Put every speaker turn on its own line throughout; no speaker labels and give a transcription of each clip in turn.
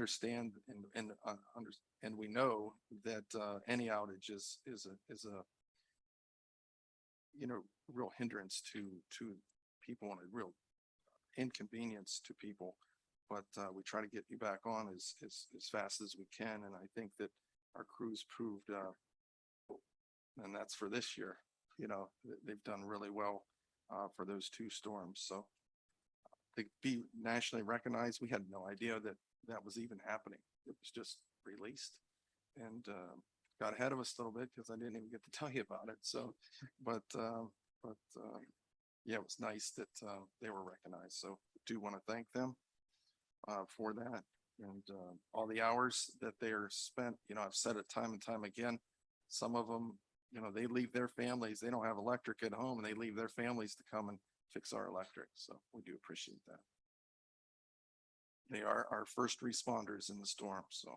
understand and, and, uh, under, and we know that, uh, any outage is, is a, is a you know, real hindrance to, to people and a real inconvenience to people. But, uh, we try to get you back on as, as, as fast as we can. And I think that our crews proved, uh, and that's for this year, you know, th- they've done really well, uh, for those two storms. So to be nationally recognized, we had no idea that that was even happening. It was just released. And, uh, got ahead of us a little bit because I didn't even get to tell you about it. So, but, um, but, um, yeah, it was nice that, uh, they were recognized. So do want to thank them uh, for that and, uh, all the hours that they are spent, you know, I've said it time and time again. Some of them, you know, they leave their families, they don't have electric at home and they leave their families to come and fix our electric. So we do appreciate that. They are our first responders in the storm, so.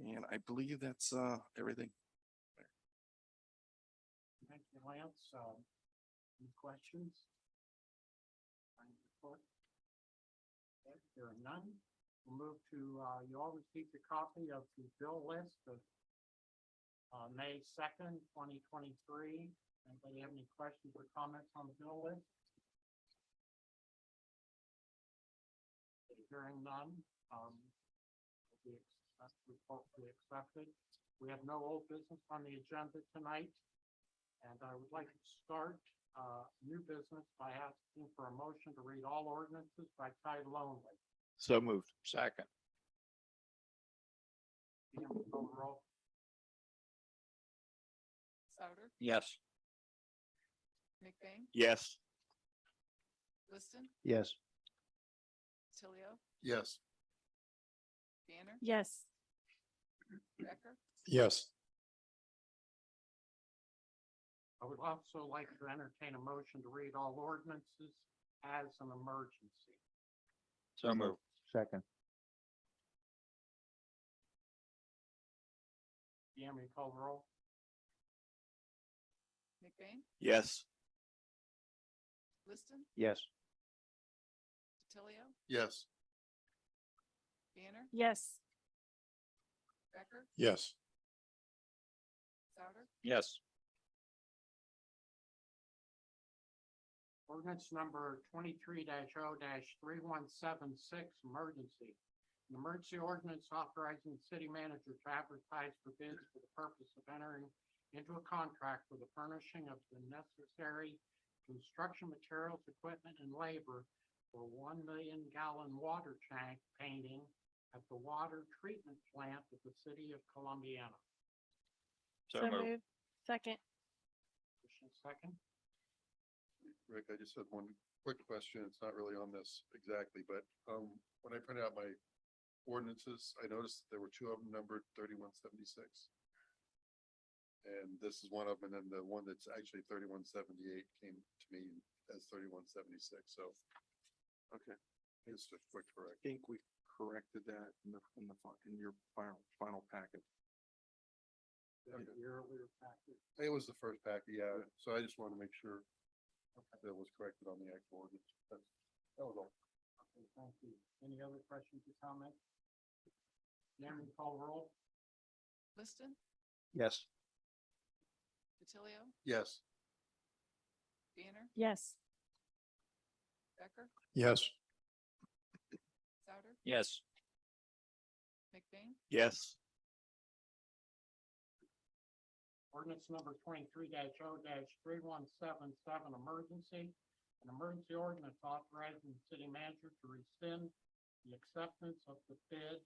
And I believe that's, uh, everything.
Thank you, Lance. Um, any questions? On the report? Okay, There are none. We'll Move to, uh, you all received a copy of the bill list of uh, May second, twenty twenty-three. Anybody have any questions or comments on the bill list? Okay, Hearing none, um, the accept- report will be accepted. We have no old business on the agenda tonight. And I would like to start uh, new business by asking for a motion to read all ordinances by title only.
So moved. Second.
Ian, will you call the roll?
Souter,
Yes.
McBain,
Yes.
Liston,
Yes.
Tilio,
Yes.
Banner,
Yes,
Becker,
Yes.
I would also like to entertain a motion to read all ordinances as an emergency.
So moved. Second.
Ian, will you call the roll?
McBain,
Yes.
Liston,
Yes.
Tilio,
Yes.
Banner,
yes,
Becker,
Yes.
Souter,
Yes.
Ordinance number twenty-three 0 three one seven six, emergency. An emergency ordinance authorizing the city manager to advertise for bids for the purpose of entering into a contract for the furnishing of the necessary construction materials, equipment, and labor for one million gallon water tank painting at the water treatment plant of the city of Columbiana.
So
so
moved.
moved. Second,
Motion second?
Rick, I just had one quick question. It's not really on this exactly, but um, when I printed out my ordinances, I noticed that there were two of them numbered thirty-one seventy-six. And this is one of them, and then the one that's actually thirty-one seventy-eight came to me as thirty-one seventy-six, so
Okay,
just a
I
quick correct.
think we corrected that in the, in the, fi- in your final, final packet.
Okay.
The earlier packet.
It was the first pack, yeah, so I just want to make sure that was corrected on the actual ordinance. That's- That was all.
Okay, thank you. Any other questions or comments? Chairman, call roll?
Liston,
Yes.
Tilio,
Yes.
Banner,
yes,
Becker,
Yes.
Souter,
Yes.
McBain,
Yes.
Ordinance number twenty-three 0 three one seven seven, emergency. An emergency ordinance authorizing the city manager to rescind the acceptance of the bid,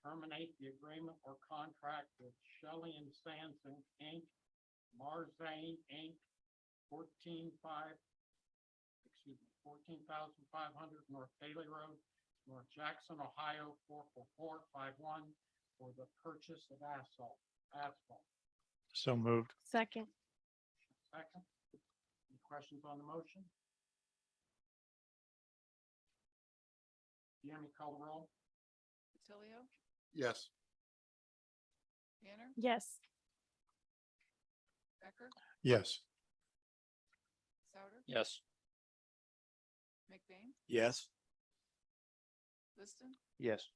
terminate the agreement or contract with Shelley and Sampson, Inc., Marzane, Inc., fourteen five, excuse me, fourteen thousand five hundred North Bailey Road, North Jackson, Ohio, four four four five one, for the purchase of asphalt, asphalt.
So moved.
second,
Second. Any questions on the motion? Jeremy, call the roll?
Tilio,
Yes.
Banner,
yes,
Becker,
Yes.
Souter,
Yes.
McBain,
Yes.
Liston,
Yes.